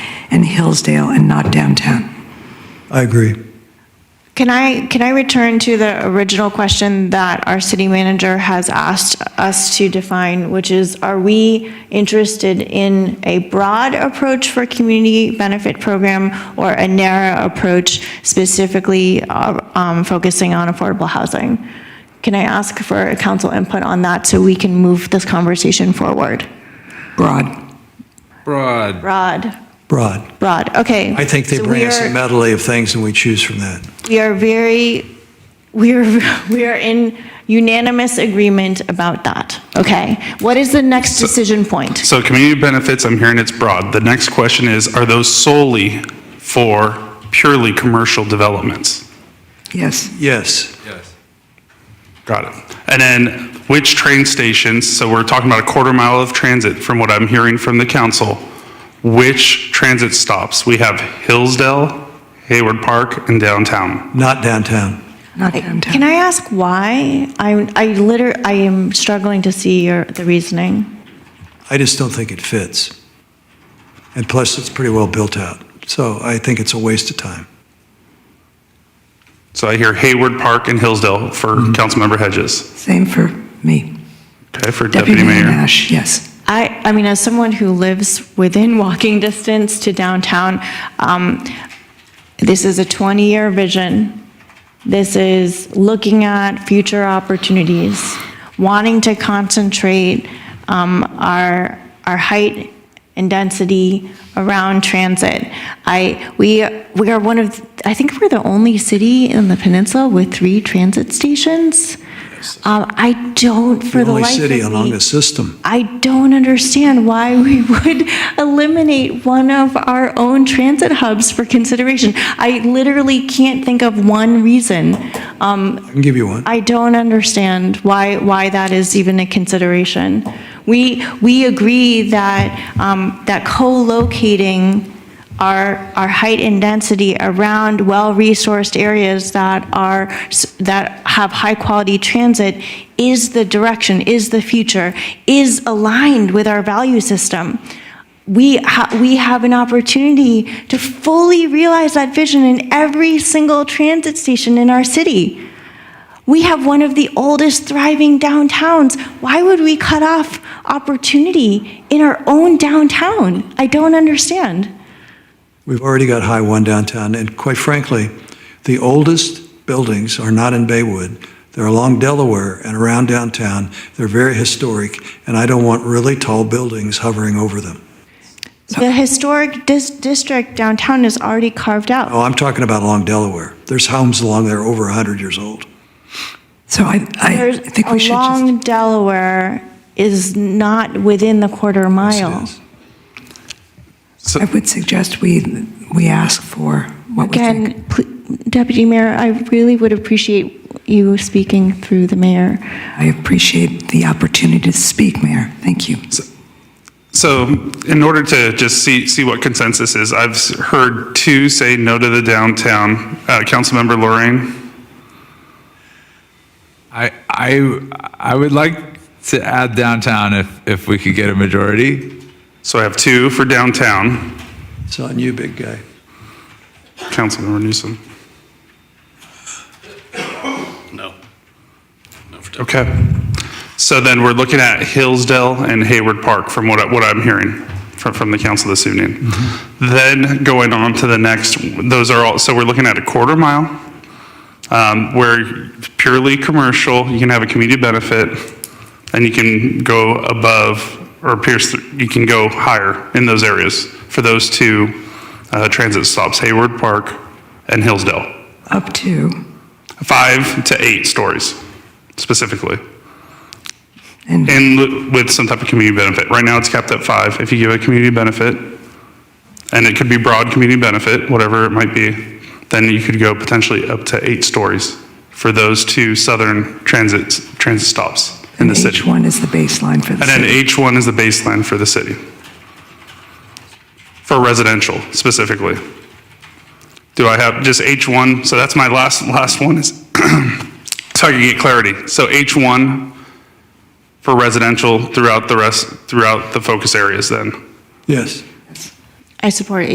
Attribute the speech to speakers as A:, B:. A: and Hillsdale and not downtown.
B: I agree.
C: Can I, can I return to the original question that our city manager has asked us to define, which is, are we interested in a broad approach for community benefit program or a narrow approach specifically uh, um, focusing on affordable housing? Can I ask for council input on that so we can move this conversation forward?
A: Broad.
D: Broad.
C: Broad,
B: Broad.
C: broad, okay.
B: I think they
C: So
B: bring
C: we
B: us a
C: are-
B: medley of things and we choose from that.
C: we are very, we are, we are in unanimous agreement about that, okay? What is the next decision point?
E: So community benefits, I'm hearing it's broad. The next question is, are those solely for purely commercial developments?
A: Yes.
B: Yes.
D: Yes.
E: Got it. And then which train stations, so we're talking about a quarter mile of transit from what I'm hearing from the council. Which transit stops? We have Hillsdale, Hayward Park, and downtown.
B: Not downtown.
A: Not downtown.
C: Can I ask why? I, I liter, I am struggling to see your, the reasoning.
B: I just don't think it fits. And plus, it's pretty well built out. So I think it's a waste of time.
E: So I hear Hayward Park and Hillsdale for Councilmember Hedges.
A: Same for me.
E: Okay, for Deputy Mayor.
A: Nash, yes.
C: I, I mean, as someone who lives within walking distance to downtown, um, this is a 20-year vision. This is looking at future opportunities, wanting to concentrate um, our, our height and density around transit. I, we, we are one of, I think we're the only city in the peninsula with three transit stations. Um, I don't, for
B: The
C: the
B: only
C: life of
B: city along
C: me-
B: the system.
C: I don't understand why we would eliminate one of our own transit hubs for consideration. I literally can't think of one reason.
B: I can give you one.
C: I don't understand why, why that is even a consideration. We, we agree that, um, that co-locating our, our height and density around well-resourced areas that are, s- that have high-quality transit is the direction, is the future, is aligned with our value system we, ha- we have an opportunity to fully realize that vision in every single transit station in our city. We have one of the oldest thriving downtowns. Why would we cut off opportunity in our own downtown? I don't understand.
B: We've already got High One downtown, and quite frankly, the oldest buildings are not in Baywood. They're along Delaware and around downtown. They're very historic, and I don't want really tall buildings hovering over them.
C: The historic dis- district downtown is already carved out.
B: Oh, I'm talking about along Delaware. There's homes along there over 100 years old.
A: So I, I I
C: There's
A: think we should just,
C: along Delaware is not within the quarter
B: Yes, it
C: mile.
B: is.
A: I would suggest we, we ask for what we think.
C: Again, pl- Deputy Mayor, I really would appreciate you speaking through the mayor.
A: I appreciate the opportunity to speak, Mayor. Thank you.
E: So in order to just see, see what consensus is, I've s- heard two say no to the downtown. Uh, Councilmember Lorraine?
D: I, I, I would like to add downtown if, if we could get a majority.
E: So I have two for downtown,
B: It's on you, big guy.
E: Councilmember Newsom. No. Okay. So then we're looking at Hillsdale and Hayward Park from what, I- what I'm hearing from, from the council this evening. Then going on to the next, those are all, so we're looking at a quarter mile, um, where purely commercial, you can have a community benefit, and you can go above or pierce, th- you can go higher in those areas for those two uh, transit stops, Hayward Park and Hillsdale.
A: Up to,
E: Five to eight stories specifically,
A: and
E: and li- with some type of community benefit. Right now, it's capped at five. If you give a community benefit, and it could be broad community benefit, whatever it might be, then you could go potentially up to eight stories for those two southern transit, transit stops in the city.
A: H1 is the baseline for the
E: And then
A: city.
E: H1 is the baseline for the city. For residential specifically. Do I have just H1? So that's my last, last one is, so I can get clarity. So H1 for residential throughout the rest, throughout the focus areas then?
B: Yes.
C: I support